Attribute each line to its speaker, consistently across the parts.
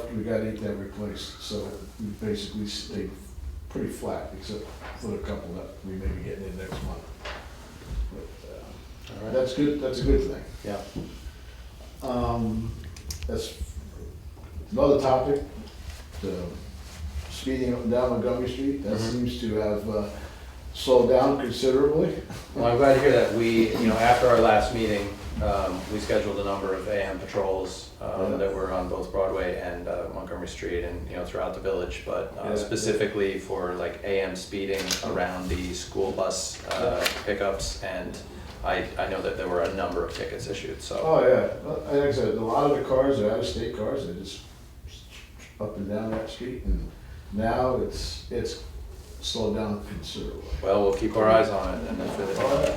Speaker 1: up, we got eight that replaced, so we basically stayed pretty flat, except for a couple that we may be getting in next month. But, uh,
Speaker 2: All right.
Speaker 1: That's good, that's a good thing.
Speaker 2: Yeah.
Speaker 1: Um, that's another topic, the speeding up and down Montgomery Street, that
Speaker 2: Mhm.
Speaker 1: seems to have uh, slowed down considerably.
Speaker 2: Well, I'm glad to hear that. We, you know, after our last meeting, um, we scheduled a number of AM patrols um,
Speaker 1: Yeah.
Speaker 2: that were on both Broadway and uh, Montgomery Street and, you know, throughout the village, but uh,
Speaker 1: Yeah.
Speaker 2: specifically for like AM speeding around the school bus uh, pickups. And I, I know that there were a number of tickets issued, so.
Speaker 1: Oh, yeah, Well, like I said, a lot of the cars are out-of-state cars, they just up and down that street, and now it's, it's slowed down considerably.
Speaker 2: Well, we'll keep our eyes on it and if
Speaker 1: Oh,
Speaker 2: it,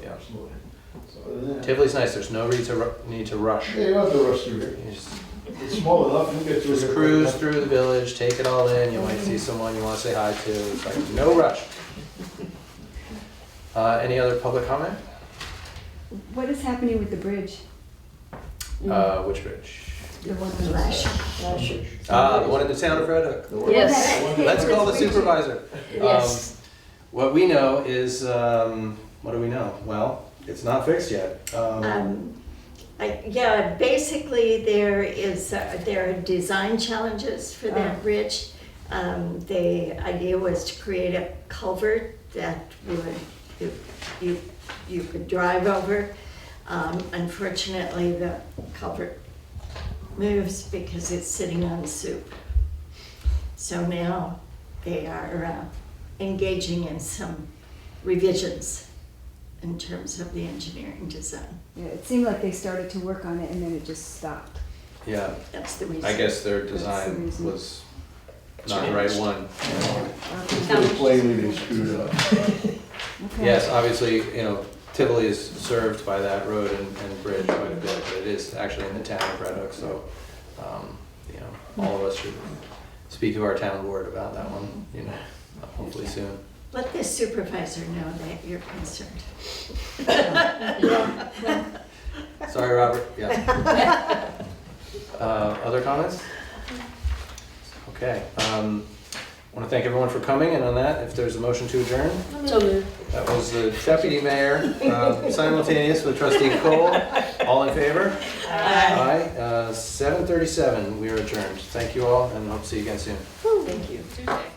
Speaker 1: yeah.
Speaker 2: Yeah.
Speaker 1: Absolutely. So, yeah.
Speaker 2: Tivoli's nice, there's no need to, ru- need to rush.
Speaker 1: Yeah, you don't have to rush through
Speaker 2: You
Speaker 1: here,
Speaker 2: just
Speaker 1: it's small enough, you get through.
Speaker 2: Just
Speaker 1: here quick
Speaker 2: cruise
Speaker 1: enough.
Speaker 2: through the village, take it all in, you might see someone you wanna say hi to, it's like, no rush. Uh, any other public comment?
Speaker 3: What is happening with the bridge?
Speaker 2: Uh, which bridge?
Speaker 3: The one on Lash.
Speaker 2: Ah, the one in the town of Red Hook.
Speaker 1: The one-
Speaker 4: Yes.
Speaker 1: the one-
Speaker 2: Let's call the supervisor.
Speaker 4: Yes.
Speaker 2: Um, What we know is, um, what do we know? Well, it's not fixed yet. Um,
Speaker 4: Um, I- Yeah, basically, there is, uh, there are design challenges for that bridge. Um, The idea was to create a culvert that would, you- you, you could drive over. Um, Unfortunately, the culvert moves because it's sitting on soup. So now they are uh, engaging in some revisions in terms of the engineering design.
Speaker 3: Yeah, it seemed like they started to work on it and then it just stopped.
Speaker 2: Yeah,
Speaker 4: That's the reason.
Speaker 2: I guess their
Speaker 3: the
Speaker 2: design
Speaker 3: reason.
Speaker 2: was not the right one.
Speaker 1: It's Pretty plainly they screwed up.
Speaker 3: Okay.
Speaker 2: Yes, obviously, you know, Tivoli is served by that road and, and bridge quite a bit, but it is actually in the town of Red Hook, so, um, you know, all of us should speak to our town board about that one, you know, hopefully soon.
Speaker 4: Let the supervisor know that you're concerned.
Speaker 2: Sorry, Robert, yeah. Uh, other comments? Okay, um, wanna thank everyone for coming, and on that, if there's a motion to adjourn, that was the deputy mayor, uh, simultaneous with trustee Cole, all in favor? Aye, uh, seven thirty-seven, we are adjourned. Thank you all, and hope to see you again soon.
Speaker 4: Thank you.
Speaker 5: Tuesday.